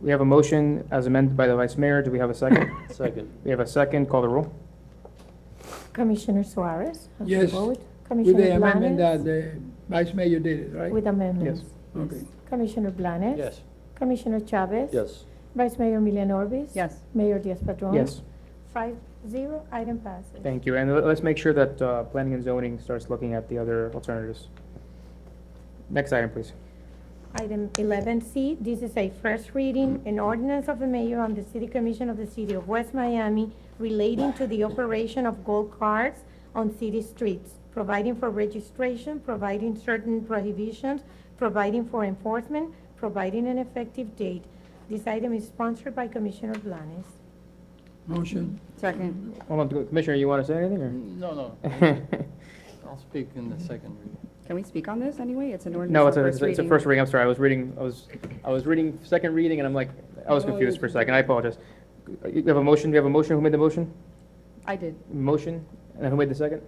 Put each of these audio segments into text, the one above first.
We have a motion as amended by the vice mayor. Do we have a second? Second. We have a second. Call the roll. Commissioner Suarez? of the Yes, board, With the Commissioner amendment that Blanes? the vice mayor did it, right? With amendments? Okay. Commissioner Blanes? Yes. Commissioner Chavez? Yes. Vice Mayor Milian Orbis? Yes. Mayor Diaz-Padrón? Yes, Five, zero, item passes. thank you. And let- let's make sure that uh, planning and zoning starts looking at the other alternatives. Next item, please. Item 11C, this is a first reading, an ordinance of the mayor on the city commission of the city of West Miami relating to the operation of golf carts on city streets, providing for registration, providing certain prohibitions, providing for enforcement, providing an effective date. This item is sponsored by Commissioner Blanes. Motion, Second. Hold on, Commissioner, you want to say anything Mm, No, no, or? I'll speak in the second reading. Can we speak on this anyway? It's an ordinance. No, it's on a, it's a- it's a reading. first reading. I'm sorry, I was reading, I was, I was reading second reading and I'm like, I was No, confused you- for a second. I apologize. You have a motion? Do you have a motion? Who made the motion? I did. Motion? And who made the second?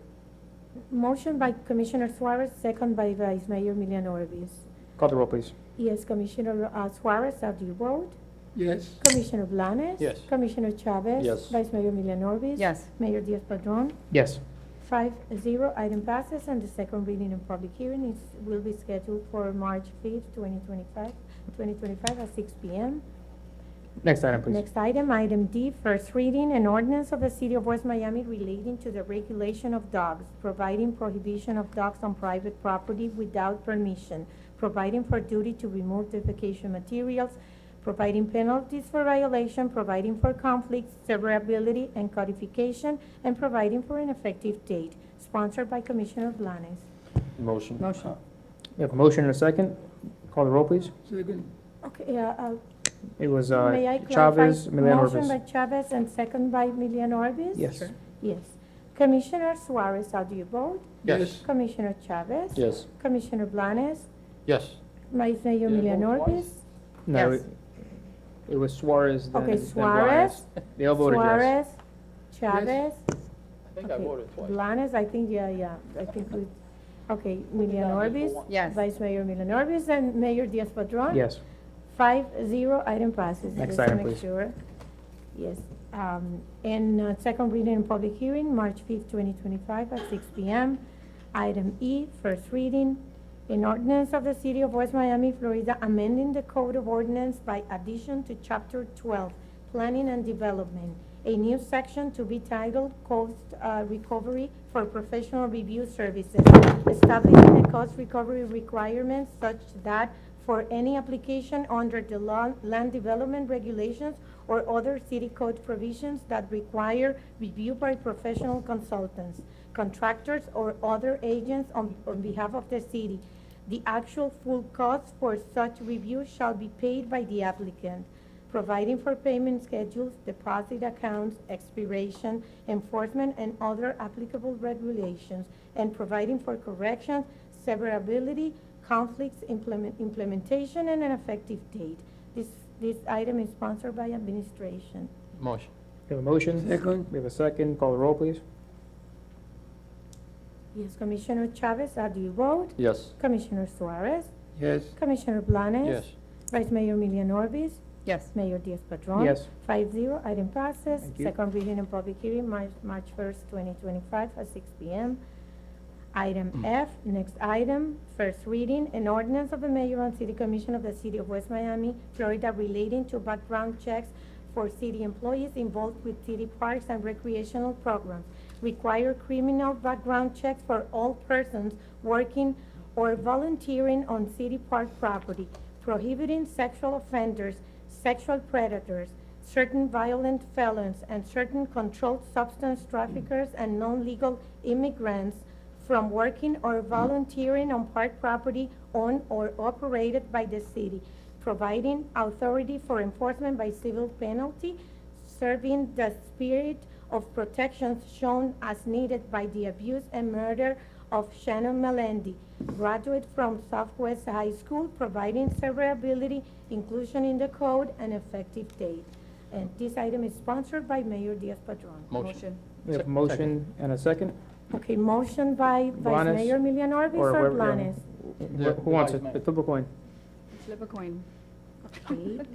Motion by Commissioner Suarez, second by Vice Mayor Milian Orbis. Call the roll, please. Yes, Commissioner uh, Suarez, how do you vote? yes. Commissioner Blanes? Yes. Commissioner Chavez? Yes. Vice Mayor Milian Orbis? Yes. Mayor Diaz-Padrón? Yes. Five zero, item passes, and the second reading and public hearing is, will be scheduled for March fifth, twenty twenty-five, twenty twenty-five at six P M. Next item, please. Next item, item D, first reading, an ordinance of the City of West Miami relating to the regulation of dogs, providing prohibition of dogs on private property without permission, providing for duty to remove defecation materials, providing penalties for violation, providing for conflicts, severability, and codification, and providing for an effective date, sponsored by Commissioner Blanes. Motion. Motion. We have a motion and a second. Call the roll, please. Second, Okay, uh, uh, It was uh, may I clarify? Chavez, Milan Motion by Orbis. Chavez and second by Milian Orbis? Yes. Sure. Yes. Commissioner Suarez, how do you vote? yes. Commissioner Chavez? Yes. Commissioner Blanes? Yes. Vice Mayor Yeah, Milian vote Orbis? No, Yes. it- it was Suarez, then then Okay, Blanes. Suarez, They all voted yes. Suarez, Chavez? I think I okay, voted twice. Blanes, I think, yeah, yeah, I think we, okay, Milian down just Orbis? for one. Yes. Vice Mayor Milian Orbis and Mayor Diaz-Padrón? Yes. Five zero, item passes. Next Just to item, make please. sure. Yes, um, and uh, second reading and public hearing, March fifth, twenty twenty-five at six P M. Item E, first reading, an ordinance of the city of West Miami, Florida, amending the code of ordinance by addition to chapter twelve, planning and development. A new section to be titled Cost uh, Recovery for Professional Review Services, establishing the cost recovery requirements such that for any application under the law, land development regulations or other city code provisions that require review by professional consultants, contractors, or other agents on, on behalf of the city. The actual full cost for such review shall be paid by the applicant, providing for payment schedules, deposit accounts, expiration, enforcement, and other applicable regulations, and providing for corrections, severability, conflicts, implement, implementation, and an effective date. This, this item is sponsored by administration. Motion. We have a motion. Second, We have a second. Call the roll, please. Yes, Commissioner Chavez, how do you vote? Yes. Commissioner Suarez? yes. Commissioner Blanes? Yes. Vice Mayor Milian Orbis? Yes. Mayor Diaz-Padrón? Yes. Five zero, item passes. Thank you. Second reading and public hearing, March, March first, twenty twenty-five, at six P M. Item F, next item, first reading, an ordinance of the mayor and city commission of the city of West Miami, Florida relating to background checks for city employees involved with city parks and recreational programs. Require criminal background checks for all persons working or volunteering on city park property, prohibiting sexual offenders, sexual predators, certain violent felons, and certain controlled substance traffickers and non-legal immigrants from working or volunteering on park property owned or operated by the city, providing authority for enforcement by civil penalty, serving the spirit of protections shown as needed by the abuse and murder of Shannon Melendi, graduate from Southwest High School, providing severability, inclusion in the code, and effective date. And this item is sponsored by Mayor Diaz-Padrón. Motion. We have a Sec- motion and a second. Okay, motion by Vice Blanes? Mayor Milian Orbis Or or whoever- um, Blanes? Who wants it? Flip a coin. Flip a coin. Okay.